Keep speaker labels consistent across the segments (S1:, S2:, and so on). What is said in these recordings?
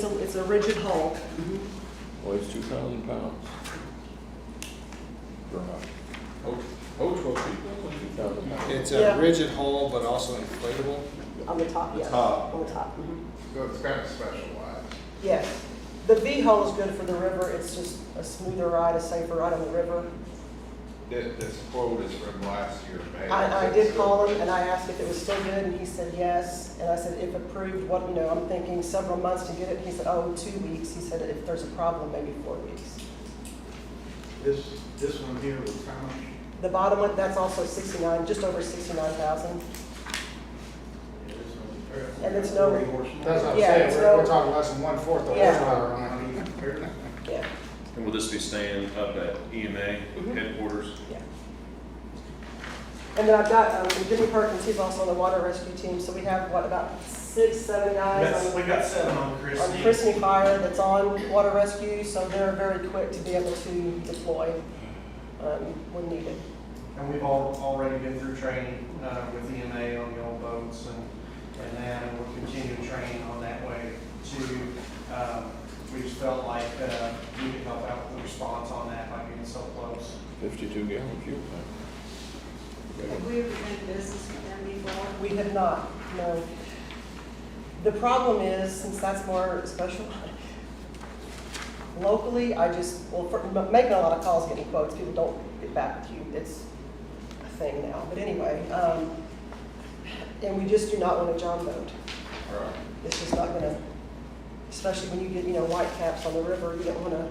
S1: It's a rigid hull.
S2: Weighs two thousand pounds. Vermont,
S3: Oak, oak will be.
S2: two thousand pounds.
S4: It's
S1: Yeah.
S4: a rigid hull, but also inflatable.
S1: On the top, yes.
S3: top.
S1: On the top. mhm.
S3: So it's kind of specialized.
S1: Yes. The V hull is good for the river. It's just a smoother ride, a safer ride on the river.
S3: This, this quote is from last year, May.
S1: I, I did call him and I asked if it was still good and he said yes. And I said, if approved, what, you know, I'm thinking several months to get it. He said, oh, two weeks. He said, if there's a problem, maybe four weeks.
S5: This, this one here was how much?
S1: The bottom one, that's also sixty-nine, just over sixty-nine thousand.
S5: Yeah, this one's
S1: And it's no-
S5: Forty horse.
S4: That's what I'm
S1: Yeah,
S4: saying,
S1: it's
S4: we're, we're
S1: no-
S4: talking less than one-fourth of
S1: Yeah.
S4: horse power on it.
S5: Not even fair.
S1: Yeah,
S6: And will this be staying up at EMA
S3: Mm-hmm.
S1: Mhm.
S6: headquarters?
S1: yeah. And then I've got, um, Jimmy Perkins, he's also on the water rescue team, so we have, what, about six, seven guys on
S7: That's, we got seven on
S1: on
S7: Christie.
S1: Christmas Fire that's on water rescue, so they're very quick to be able to deploy um, when needed.
S7: And we've all, already been through training, uh, with EMA on the old boats and, and that, and we'll continue training on that way too. Um, we just felt like, uh, we could help out with the response on that by being so close.
S2: Fifty-two gallon fuel tank.
S8: Have we ever done business with them before?
S1: We have not, no. The problem is, since that's more special, locally, I just, well, for- m- making a lot of calls, getting quotes, people don't get back to you, it's a thing now, but anyway. um, And we just do not want a John boat.
S3: Right.
S1: It's just not gonna, especially when you get, you know, white caps on the river, you don't wanna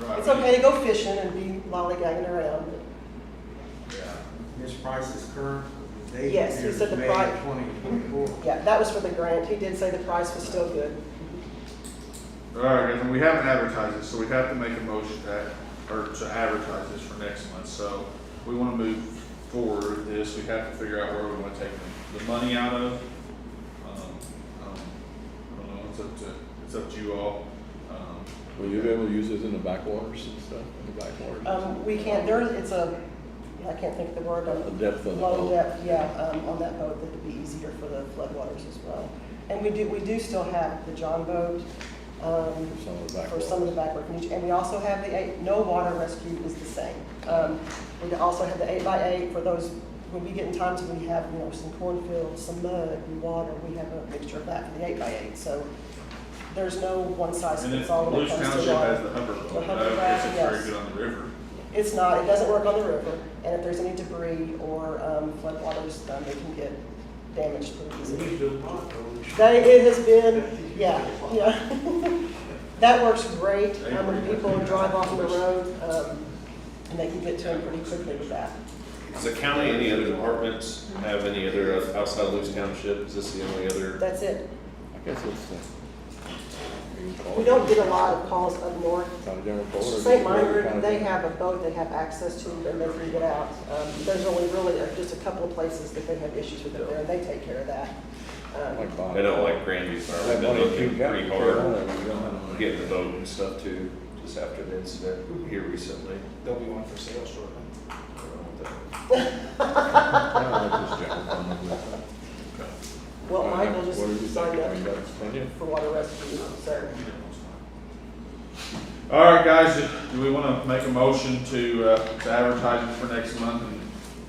S3: Right.
S1: It's okay to go fishing and be lollygagging around.
S3: Yeah.
S5: This price is current. The date
S1: Yes, he
S5: here is
S1: said the
S5: May
S1: pri-
S5: Twenty twenty-four.
S1: Yeah, that was for the grant. He did say the price was still good.
S3: All right, and we haven't advertised it, so we have to make a motion that, or to advertise this for next month, so we wanna move forward with this, we have to figure out where we wanna take the, the money out of. Um, um, I don't know, it's up to, it's up to you all, um.
S2: Will you be able to use this in the backwaters and stuff, in the backwaters?
S1: Um, we can't, there, it's a, I can't think of the word,
S2: The
S1: um,
S2: depth of the
S1: low
S2: hull.
S1: depth, yeah, um, on that boat, that'd be easier for the floodwaters as well. And we do, we do still have the John boat, um,
S2: Some of the
S1: for some of the
S2: backwaters.
S1: backward communities. And we also have the eight, no water rescue is the same. Um, we also have the eight by eight for those, when we get in times when we have, you know, some cornfields, some mud and water, we have a mixture of that for the eight by eight. So there's no one size
S3: And then
S1: fits all when it
S3: Volusia
S1: comes
S3: Township
S1: to
S3: has
S1: water.
S3: the Humber Bowl,
S1: The Humber
S3: I don't guess it's
S1: Bowl,
S3: very
S1: yes.
S3: good on the river.
S1: It's not, it doesn't work on the river, and if there's any debris or um, floodwaters, um, they can get damaged pretty
S5: We
S1: easily.
S5: used to lot those.
S1: They, it has been, yeah, yeah. That works great, um, when people drive off the road, um, and they can get to them pretty quickly with that.
S6: Does the county, any other departments have any other uh, outside of Lewis Township? Is this the only other?
S1: That's it.
S2: I guess it's, uh. you can call
S1: We
S2: it-
S1: don't get a lot of calls up north.
S2: County General Folder.
S1: St. Meinberg, they have a boat they have access to, and they can get out. Um, There's only really uh, just a couple of places that they have issues with it there, and they take care of that. Um,
S2: Like Bob.
S6: I know like Grandview's,
S2: That
S6: they've been
S2: money
S6: looking
S2: you got.
S6: pretty hard,
S2: We don't have-
S6: getting the boat and stuff too, just after the incident here recently.
S4: There'll be one for sale shortly.
S6: I don't know what that-
S2: I don't like this general fund.
S1: Well,
S2: Uh,
S1: Michael
S2: what did you
S1: just
S2: say?
S1: signed
S2: I mean,
S1: up
S2: that's plenty.
S1: for water rescue, so.
S3: All right, guys, do- do we want to make a motion to, uh, to advertise it for next month and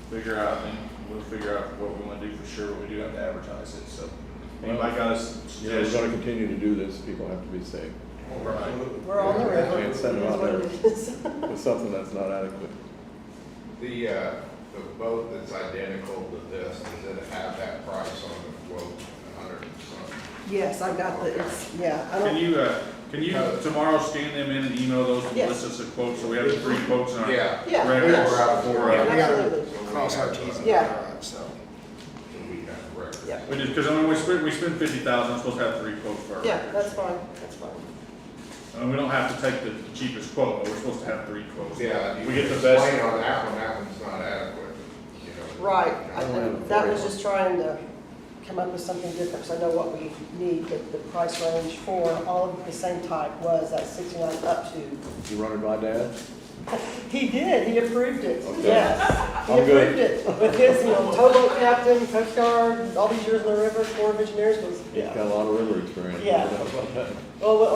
S3: figure out, and we'll figure out what we want to do for sure, but we do have to advertise it, so. Anybody got a s-
S2: Yeah, we're
S3: suggestion?
S2: gonna continue to do this, people have to be safe.
S1: We're on the river.
S2: Can't send them out there. It's something that's not adequate.
S9: The, uh, the boat that's identical to this, does it have that price on the quote, a hundred and something?
S1: Yes, I've got the, it's, yeah, I
S3: Can
S1: don't,
S3: you, uh, can you tomorrow scan them in and email those to
S1: Yes.
S3: list us a quote, so we have the three quotes in our
S9: Yeah.
S1: Yeah.
S3: records
S9: Four out of
S3: for,
S9: four.
S3: uh,
S4: Yeah, we gotta
S1: Absolutely.
S4: cross our Ts and
S1: Yeah.
S4: dot our Is, so.
S9: uh, We have records.
S1: Yeah.
S3: We just, because I mean, we spent, we spent fifty thousand, supposed to have three quotes for our
S1: yeah,
S3: records.
S1: that's fine, that's fine.
S3: And we don't have to take the cheapest quote, but we're supposed to have three quotes.
S9: Yeah, you
S3: We get the
S9: explain
S3: best,
S9: on that one, that one's not adequate, you know.
S1: Right,
S9: You know,
S1: I- I- that was just trying to come up with something different, because I know what we need, but the price range for all of the same type was that sixty-nine up to.
S2: You run it by dad?
S1: He did, he approved it,
S2: Okay.
S1: yes. He
S2: I'm good.
S1: approved it with his, you know, towboat captain, coast guard, all these years in the river, Corps of Engineers was,
S2: He's got
S1: yeah.
S2: a lot of river experience.
S1: Yeah. Well,